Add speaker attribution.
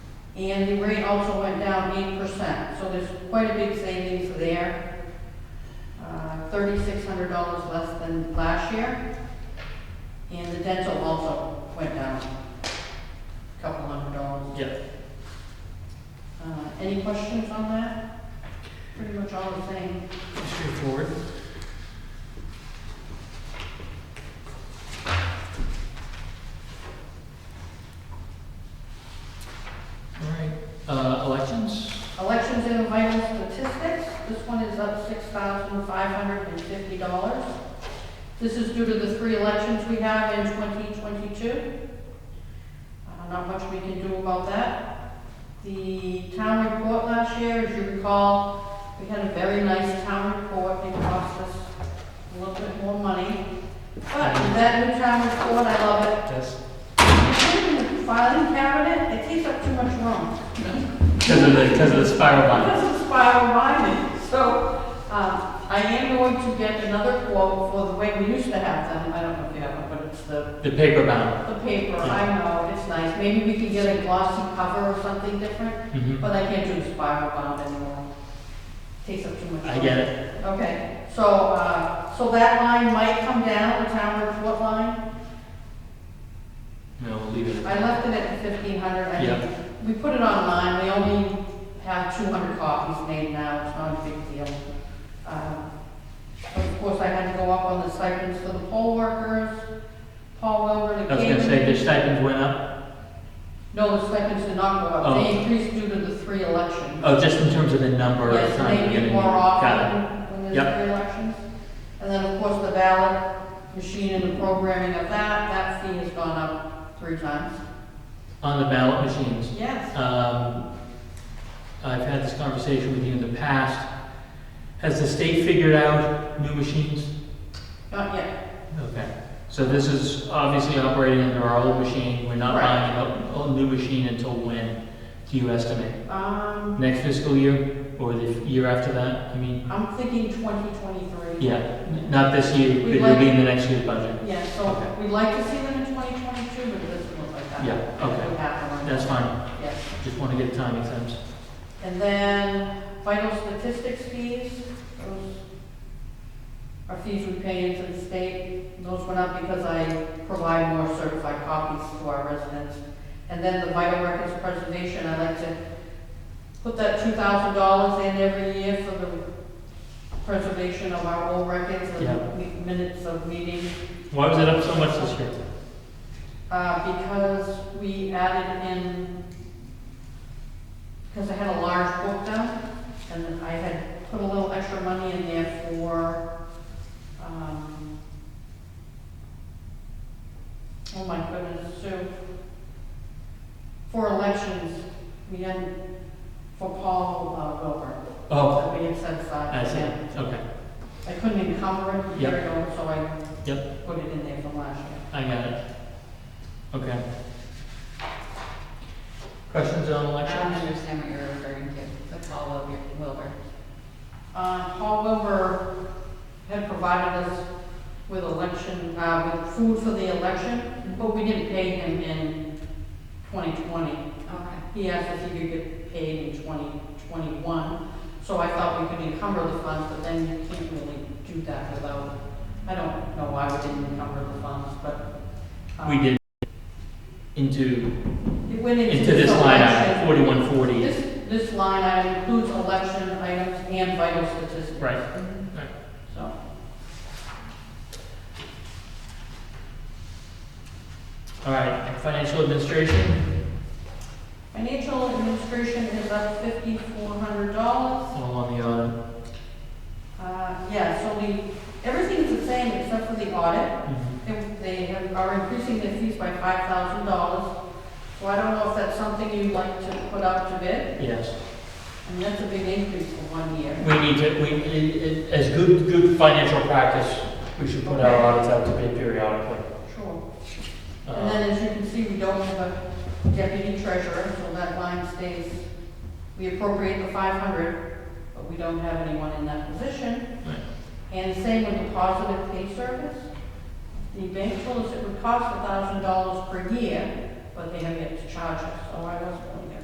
Speaker 1: And the rate also went down eight percent, so there's quite a big savings there. Uh, Thirty-six hundred dollars less than last year. And the dental also went down a couple hundred dollars.
Speaker 2: Yeah.
Speaker 1: Uh, Any questions on that? Pretty much all the same.
Speaker 2: Straightforward. All right, uh, elections?
Speaker 1: Elections and vital statistics, this one is up six thousand five hundred and fifty dollars. This is due to the three elections we have in twenty twenty-two. Uh, Not much we can do about that. The town report last year, as you recall, we had a very nice town report, it cost us a little bit more money. But with that new town report, I love it.
Speaker 2: Yes.
Speaker 1: It's in the Filing cabinet, it takes up too much room.
Speaker 2: Because of the, because of the spiral bind.
Speaker 1: This is spiral binding, so, um, I am going to get another quote for the way we used to have them, I don't know if you have it, but it's the,
Speaker 2: The paper bound.
Speaker 1: the paper, I know, it's nice, maybe we can get a glossy cover or something different,
Speaker 2: Mhm.
Speaker 1: but I can't do spiral bound anymore. Takes up too much.
Speaker 2: I get it.
Speaker 1: time. Okay, so, uh, so that line might come down, the town report line,
Speaker 2: No, we'll leave it.
Speaker 1: I left it at fifteen hundred, I
Speaker 2: Yeah.
Speaker 1: think, we put it online, we only have two hundred copies made now, it's not a big deal. Um, Of course, I had to go up on the stipends for the poll workers, Paul Wilbur,
Speaker 2: I
Speaker 1: the
Speaker 2: was gonna say,
Speaker 1: cable.
Speaker 2: the stipends went up?
Speaker 1: No, the stipends did not go up,
Speaker 2: Oh.
Speaker 1: they increased due to the three elections.
Speaker 2: Oh, just in terms of the number of
Speaker 1: Yes,
Speaker 2: times.
Speaker 1: they
Speaker 2: you're
Speaker 1: meet
Speaker 2: gonna
Speaker 1: more
Speaker 2: need- got it.
Speaker 1: often when there's
Speaker 2: Yep.
Speaker 1: three elections. And then, of course, the ballot machine and the programming of that, that fee has gone up three times.
Speaker 2: On the ballot machines,
Speaker 1: Yes.
Speaker 2: Um, I've had this conversation with you in the past. Has the state figured out new machines?
Speaker 1: Not yet,
Speaker 2: Okay. So this is obviously operating under our old machine. We're not
Speaker 1: Right.
Speaker 2: buying an o- old new machine until when, do you estimate?
Speaker 1: um,
Speaker 2: Next fiscal year or the year after that? I mean,
Speaker 1: I'm thinking twenty twenty-three.
Speaker 2: yeah, n- not this year, but
Speaker 1: We'd
Speaker 2: it'll be
Speaker 1: like-
Speaker 2: in the next year's budget.
Speaker 1: Yeah, so
Speaker 2: Okay.
Speaker 1: we'd like to see them in 2022, but it doesn't look like that.
Speaker 2: Yeah, okay.
Speaker 1: Would happen.
Speaker 2: That's fine.
Speaker 1: Yes.
Speaker 2: Just want to get timing sense.
Speaker 1: And then vital statistics fees, those are fees we pay into the state. Those went up because I provide more certified copies to our residents. And then the vital records preservation, I like to put that $2,000 in every year for the preservation of our old records,
Speaker 2: Yeah.
Speaker 1: the mi- minutes of meetings.
Speaker 2: Why was it up so much this year?
Speaker 1: Uh, because we added in, because I had a large book done, and I had put a little extra money in there for, um, oh my goodness, so, for elections, we had, for Paul uh, Wilbur.
Speaker 2: Oh,
Speaker 1: That we had set aside.
Speaker 2: I see.
Speaker 1: Yeah.
Speaker 2: Okay.
Speaker 1: I couldn't encumber it,
Speaker 2: Yep.
Speaker 1: here it goes, so I
Speaker 2: Yep,
Speaker 1: put it in there from last year.
Speaker 2: I got it. Okay. Questions on
Speaker 3: I don't
Speaker 2: elections?
Speaker 3: understand what you're referring to, the Paul Wil- Wilbur.
Speaker 1: Uh, Paul Wilbur had provided us with election, uh, with food for the election, but we didn't pay him in 2020.
Speaker 3: Okay.
Speaker 1: He asked if he could get paid in 2021, so I thought we could encumber the funds, but then you can't really do that without, I don't know why we didn't encumber the funds, but. um,
Speaker 2: We did into,
Speaker 1: It went into.
Speaker 2: into this line
Speaker 1: election.
Speaker 2: item, forty-one forty.
Speaker 1: This, this line item includes election items and vital statistics.
Speaker 2: Right,
Speaker 1: So.
Speaker 2: all right, financial administration,
Speaker 1: Financial administration is up fifty-four hundred dollars.
Speaker 2: all on the audit.
Speaker 1: Uh, yeah, so we, everything's the same except for the audit.
Speaker 2: Mhm.
Speaker 1: They- They have- are increasing their fees by five thousand dollars. So I don't know if that's something you'd like to put out to bid.
Speaker 2: Yes,
Speaker 1: And that's a big increase for one year.
Speaker 2: we need to, we, i- i- as good, good financial practice, we should put our audits out to bid periodically.
Speaker 1: Sure. And
Speaker 2: Uh,
Speaker 1: then as you can see, we don't have a deputy treasurer, so that line stays. We appropriate the five hundred, but we don't have anyone in that position.
Speaker 2: right.
Speaker 1: And the same with the positive pay service. The bank told us it would cost a thousand dollars per year, but they have yet to charge us, so I wasn't